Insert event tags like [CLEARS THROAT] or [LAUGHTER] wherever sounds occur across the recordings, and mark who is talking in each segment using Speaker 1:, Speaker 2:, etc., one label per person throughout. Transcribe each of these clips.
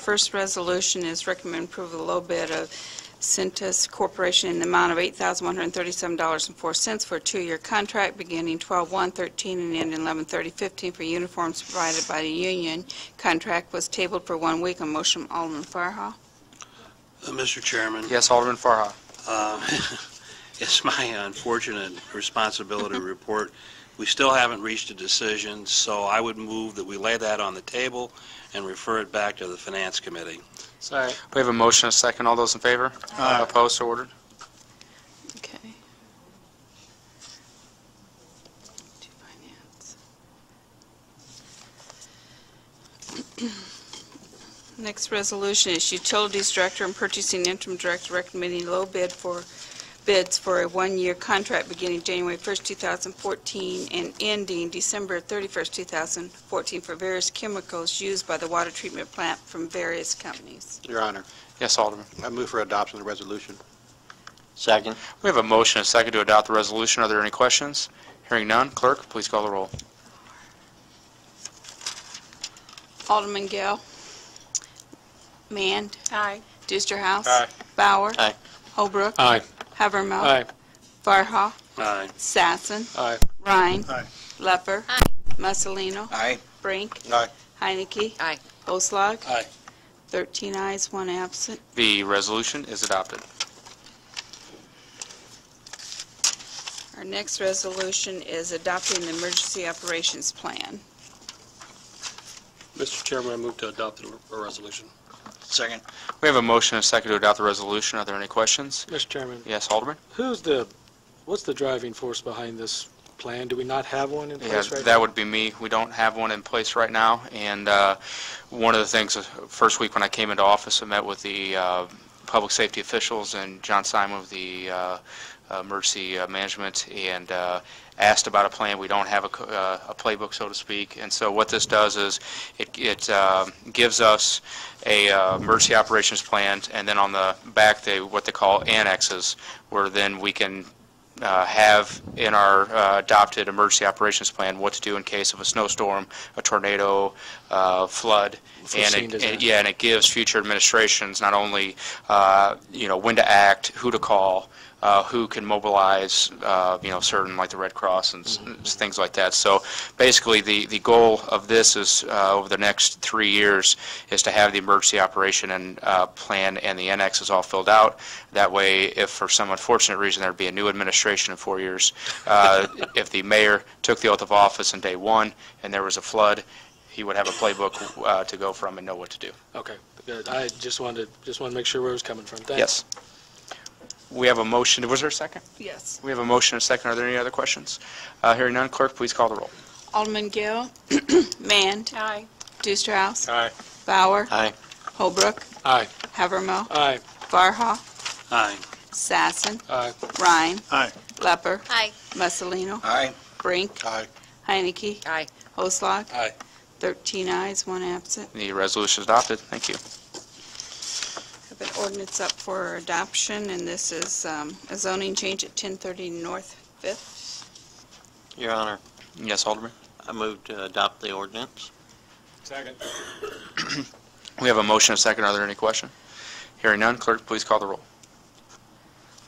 Speaker 1: First resolution is recommend approval of the low bid of Centus Corporation in the amount of $8,137.04 for a two-year contract beginning 12/1/13 and ending 11/30/15 for uniforms provided by the union. Contract was tabled for one week. A motion from Alderman Farha.
Speaker 2: Uh, Mr. Chairman,
Speaker 3: Yes, Alderman Farha.
Speaker 2: uh, [LAUGHS] it's my unfortunate responsibility to report. We still haven't reached a decision, so I would move that we lay that on the table and refer it back to the Finance Committee.
Speaker 4: Sorry.
Speaker 3: We have a motion, and a second. All those in favor?
Speaker 4: Aye.
Speaker 3: Opposed, so ordered.
Speaker 1: Okay. To finance. [CLEARS THROAT] Next resolution is Utilities Director and Purchasing Interim Director recommending low bid for bids for a one-year contract beginning January 1st, 2014 and ending December 31st, 2014 for various chemicals used by the water treatment plant from various companies.
Speaker 4: Your Honor,
Speaker 3: Yes, Alderman.
Speaker 4: I move for adoption of the resolution.
Speaker 5: Second.
Speaker 3: We have a motion, and a second to adopt the resolution. Are there any questions? Hearing none, clerk, please call the roll.
Speaker 1: Alderman Gale. Mand.
Speaker 6: Aye.
Speaker 1: Deusterhouse.
Speaker 3: Aye.
Speaker 1: Bauer.
Speaker 5: Aye.
Speaker 1: Holbrook.
Speaker 4: Aye.
Speaker 1: Havermill.
Speaker 4: Aye.
Speaker 1: Farha.
Speaker 2: Aye.
Speaker 1: Sassen.
Speaker 4: Aye.
Speaker 1: Rhine.
Speaker 4: Aye.
Speaker 1: Lepper.
Speaker 6: Aye.
Speaker 1: Mussolino.
Speaker 5: Aye.
Speaker 1: Brink.
Speaker 4: Aye.
Speaker 1: Heinecke.
Speaker 6: Aye.
Speaker 1: Oslog.
Speaker 4: Aye.
Speaker 1: 13 ayes, one absent.
Speaker 3: The resolution is adopted.
Speaker 1: Our next resolution is adopting the emergency operations plan.
Speaker 4: Mr. Chairman, I move to adopt the resolution.
Speaker 5: Second.
Speaker 3: We have a motion, and a second to adopt the resolution. Are there any questions?
Speaker 7: Mr. Chairman,
Speaker 3: Yes, Alderman.
Speaker 7: who's the, what's the driving force behind this plan? Do we not have one in
Speaker 3: Yeah,
Speaker 7: place right
Speaker 3: that
Speaker 7: now?
Speaker 3: would be me. We don't have one in place right now, and uh, one of the things, uh, first week when I came into office, I met with the uh, public safety officials and John Simon of the uh, emergency uh, management, and uh, asked about a plan. We don't have a co- uh, a playbook, so to speak, and so what this does is, it- it um, gives us a uh, emergency operations plan, and then on the back, they, what they call annexes, where then we can uh, have in our uh, adopted emergency operations plan what to do in case of a snowstorm, a tornado, uh, flood. and
Speaker 7: Foreseen
Speaker 3: it-
Speaker 7: disaster.
Speaker 3: and- Yeah, and it gives future administrations not only, uh, you know, when to act, who to call, uh, who can mobilize, uh, you know, certain, like the Red Cross and s- s- things like that. So basically, the, the goal of this is, uh, over the next three years, is to have the emergency operation and uh, plan and the annexes all filled out. That way, if for some unfortunate reason there'd be a new administration in four years, uh, [LAUGHS] if the mayor took the oath of office on day one and there was a flood, he would have a playbook uh, to go from and know what to do.
Speaker 7: Okay, good. I just wanted, to just wanted to make sure where it was coming from. Thanks.
Speaker 3: Yes. We have a motion, was there a second?
Speaker 1: Yes.
Speaker 3: We have a motion and a second. Are there any other questions? Uh, Hearing none, clerk, please call the roll.
Speaker 1: Alderman Gale. Mand.
Speaker 6: Aye.
Speaker 1: Deusterhouse.
Speaker 7: Aye.
Speaker 1: Bauer.
Speaker 5: Aye.
Speaker 1: Holbrook.
Speaker 7: Aye.
Speaker 1: Havermill.
Speaker 7: Aye.
Speaker 1: Farha.
Speaker 2: Aye.
Speaker 1: Sassen.
Speaker 7: Aye.
Speaker 1: Rhine.
Speaker 4: Aye.
Speaker 1: Lepper.
Speaker 6: Aye.
Speaker 1: Mussolino.
Speaker 5: Aye.
Speaker 1: Brink.
Speaker 4: Aye.
Speaker 1: Heinecke.
Speaker 6: Aye.
Speaker 1: Oslog.
Speaker 4: Aye.
Speaker 1: 13 ayes, one absent.
Speaker 3: The resolution is adopted. Thank you.
Speaker 1: Have an ordinance up for adoption, and this is um, a zoning change at 1030 North Fifth.
Speaker 5: Your Honor,
Speaker 3: Yes, Alderman?
Speaker 5: I move to adopt the ordinance.
Speaker 4: Second.
Speaker 3: We have a motion and a second. Are there any questions? Hearing none, clerk, please call the roll.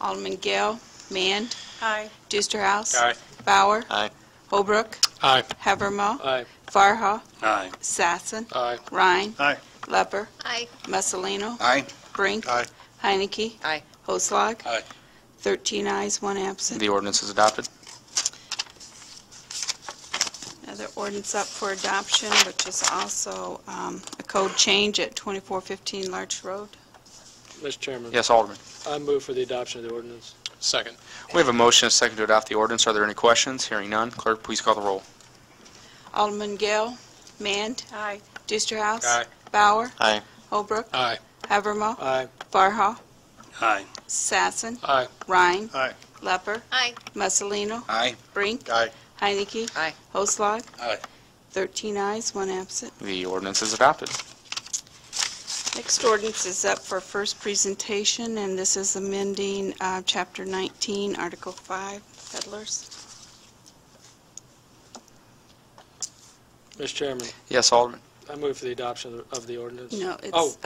Speaker 1: Alderman Gale, Mand,
Speaker 6: Aye.
Speaker 1: Deusterhouse.
Speaker 4: Aye.
Speaker 1: Bauer.
Speaker 5: Aye.
Speaker 1: Holbrook.
Speaker 7: Aye.
Speaker 1: Havermill.
Speaker 7: Aye.
Speaker 1: Farha.
Speaker 2: Aye.
Speaker 1: Sassen.
Speaker 7: Aye.
Speaker 1: Rhine.
Speaker 4: Aye.
Speaker 1: Lepper.
Speaker 6: Aye.
Speaker 1: Mussolino.
Speaker 5: Aye.
Speaker 1: Brink.
Speaker 4: Aye.
Speaker 1: Heinecke.
Speaker 6: Aye.
Speaker 1: Oslog.
Speaker 4: Aye.
Speaker 1: 13 ayes, one absent.
Speaker 3: The ordinance is adopted.
Speaker 1: Another ordinance up for adoption, which is also um, a code change at 2415 Larch Road.
Speaker 7: Mr. Chairman,
Speaker 3: Yes, Alderman?
Speaker 7: I move for the adoption of the ordinance.
Speaker 4: Second.
Speaker 3: We have a motion and a second to adopt the ordinance. Are there any questions? Hearing none, clerk, please call the roll.
Speaker 1: Alderman Gale, Mand,
Speaker 6: Aye.
Speaker 1: Deusterhouse.
Speaker 4: Aye.
Speaker 1: Bauer.
Speaker 5: Aye.
Speaker 1: Holbrook.
Speaker 7: Aye.
Speaker 1: Havermill.
Speaker 7: Aye.
Speaker 1: Farha.
Speaker 2: Aye.
Speaker 1: Sassen.
Speaker 7: Aye.
Speaker 1: Rhine.
Speaker 4: Aye.
Speaker 1: Lepper.
Speaker 6: Aye.
Speaker 1: Mussolino.
Speaker 5: Aye.
Speaker 1: Brink.
Speaker 4: Aye.
Speaker 1: Heinecke.
Speaker 6: Aye.
Speaker 1: Oslog.
Speaker 4: Aye.
Speaker 1: 13 ayes, one absent.
Speaker 3: The ordinance is adopted.
Speaker 1: Next ordinance is up for first presentation, and this is amending uh, Chapter 19, Article 5, peddlers.
Speaker 7: Mr. Chairman,
Speaker 3: Yes, Alderman?
Speaker 7: I move for the adoption of the- of the ordinance.
Speaker 1: No, it's...
Speaker 7: Oh,